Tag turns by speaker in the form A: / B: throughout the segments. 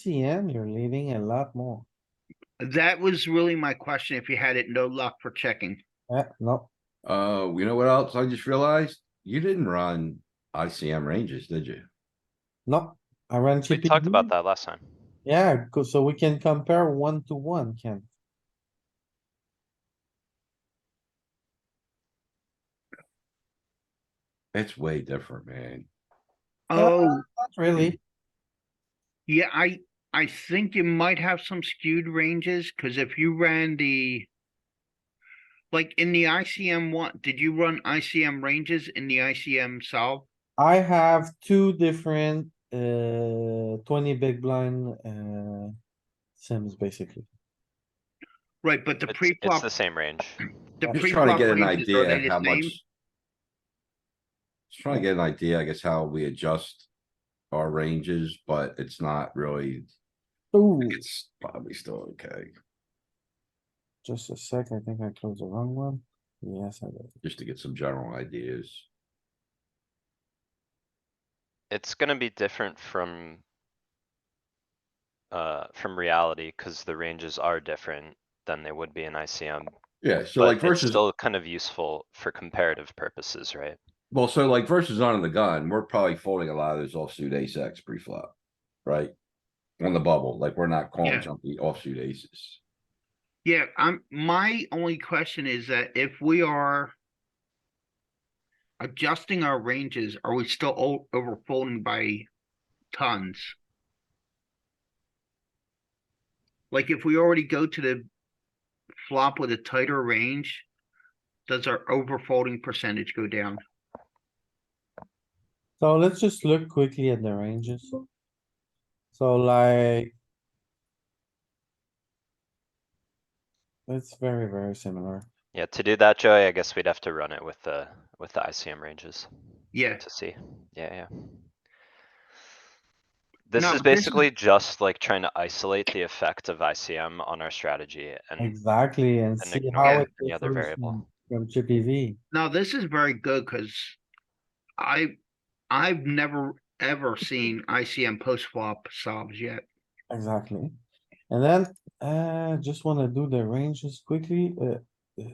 A: ICM, you're leading a lot more.
B: That was really my question, if you had it, no luck for checking.
A: Yeah, no,
C: Uh, you know what else? I just realized you didn't run ICM ranges, did you?
A: no, I ran
D: We
A: chippy.
D: talked about
A: V.
D: that last time.
A: Yeah, co- so we can compare one to one, Ken.
C: It's way different, man.
B: Oh,
A: Uh, Not really.
B: yeah, I, I think you might have some skewed ranges, cuz if you ran the. Like in the ICM one, did you run ICM ranges in the ICM solve?
A: I have two different, uh, twenty big blind, uh, sims basically.
B: Right, but the
D: It's, it's
B: pre-flop,
D: the same range.
B: the
C: Just trying to
B: pre-flop
C: get an
B: ranges, are they
C: idea how
B: the
C: much.
B: same?
C: Just trying to get an idea, I guess, how we adjust our ranges, but it's not really,
A: Ooh,
C: it's probably still okay,
A: just a sec, I think I closed the wrong one. Yes, I did.
C: just to get some general ideas.
D: It's gonna be different from. Uh, from reality, cuz the ranges are different than they would be in ICM,
C: Yeah, so like
D: but it's
C: versus,
D: still kind of useful for comparative purposes, right?
C: well, so like versus on the gun, we're probably folding a lot of those offsuit ace X pre-flop, right? On the bubble, like we're not
B: Yeah.
C: calling junky offsuit aces.
B: Yeah, I'm, my only question is that if we are. Adjusting our ranges, are we still o- overfolding by tons? Like if we already go to the flop with a tighter range, does our overfolding percentage go down?
A: So let's just look quickly at the ranges. So like. It's very, very similar.
D: Yeah, to do that, Joey, I guess we'd have to run it with the, with the ICM ranges
B: Yeah,
D: to see. Yeah, yeah. This
B: No,
D: is
B: but this is-
D: basically just like trying to isolate the effect of ICM on our strategy and
A: Exactly, and
D: and
A: see
D: ignore
A: how it
D: any other
A: differs
D: variable.
A: from- from Chippy V.
B: now this is very good, cause. I, I've never ever seen ICM post flop solves yet.
A: Exactly. And then, uh, just wanna do the ranges quickly, uh. uh,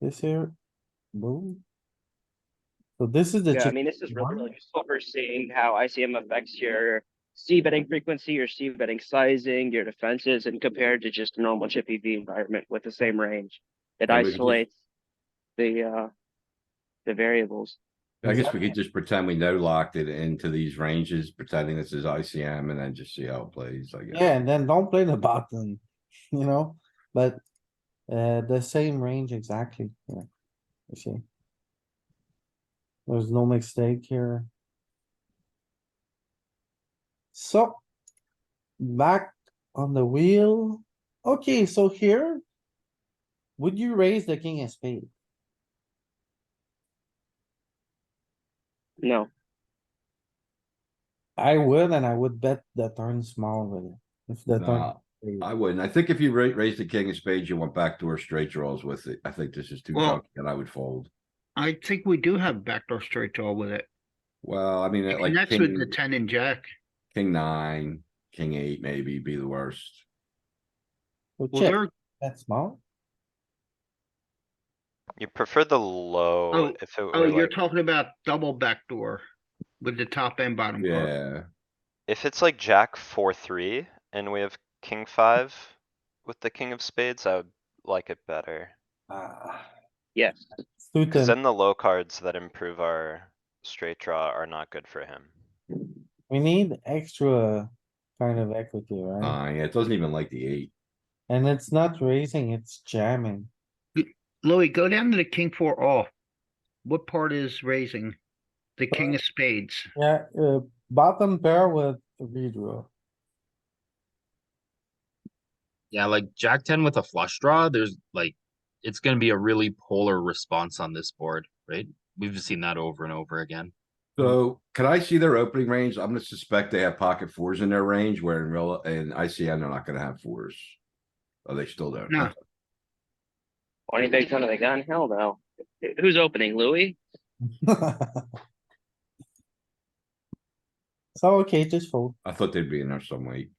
A: This here, boom. So this is the.
E: Yeah, I
A: chip-
E: mean, this is really,
A: one.
E: really useful for seeing how ICM affects your C betting frequency, your C betting sizing, your defenses, and compared to just a normal chippy V environment with the same range. It
C: Yeah, we can just-
E: isolates the, uh, the variables.
C: I guess we could just pretend we know locked it into these ranges, pretending this is ICM and then just see how it plays, I guess.
A: Yeah, and then don't play the button, you know, but, uh, the same range exactly, yeah. You see? There's no mistake here. So, back on the wheel. Okay, so here, would you raise the king of spade?
E: No,
A: I would, and I would bet the turn small with it. If the turn.
C: Nah, I wouldn't. I think if you ra- raised the king of spades, you went backdoor straight draws with it. I think this is too
B: Well-
C: chunky and I would fold.
B: I think we do have backdoor straight draw with it.
C: Well, I mean,
B: It
C: at like
B: connects with
C: king,
B: the ten and jack.
C: king nine, king eight maybe be the worst.
A: so
B: Well,
A: check,
B: there,
A: bet small.
D: You prefer the low
B: Oh,
D: if it
B: oh,
D: were
B: you're
D: like,
B: talking about double backdoor with the top and bottom card.
C: Yeah,
D: if it's like jack four, three, and we have king five with the king of spades, I would like it better.
A: Ah,
E: yes.
D: Cause
A: Suited,
D: then the low cards that improve our straight draw are not good for him.
A: we need extra kind of equity, right?
C: uh, yeah, it doesn't even like the eight.
A: And it's not raising, it's jamming.
B: Louis, go down to the king four off. What part is raising? The
C: Uh,
B: king of spades.
A: Yeah, uh, bottom pair with redraw.
F: Yeah, like Jack ten with a flush draw, there's like, it's gonna be a really polar response on this board, right? We've seen that over and over again.
C: So can I see their opening range? I'm gonna suspect they have pocket fours in their range where in real, in ICM, they're not gonna have fours. Oh, they still don't?
B: No.
E: Twenty bigs under the gun, hell no. Wh- Who's opening, Louis?
A: So, okay, just fold.
C: I thought they'd be in there some way.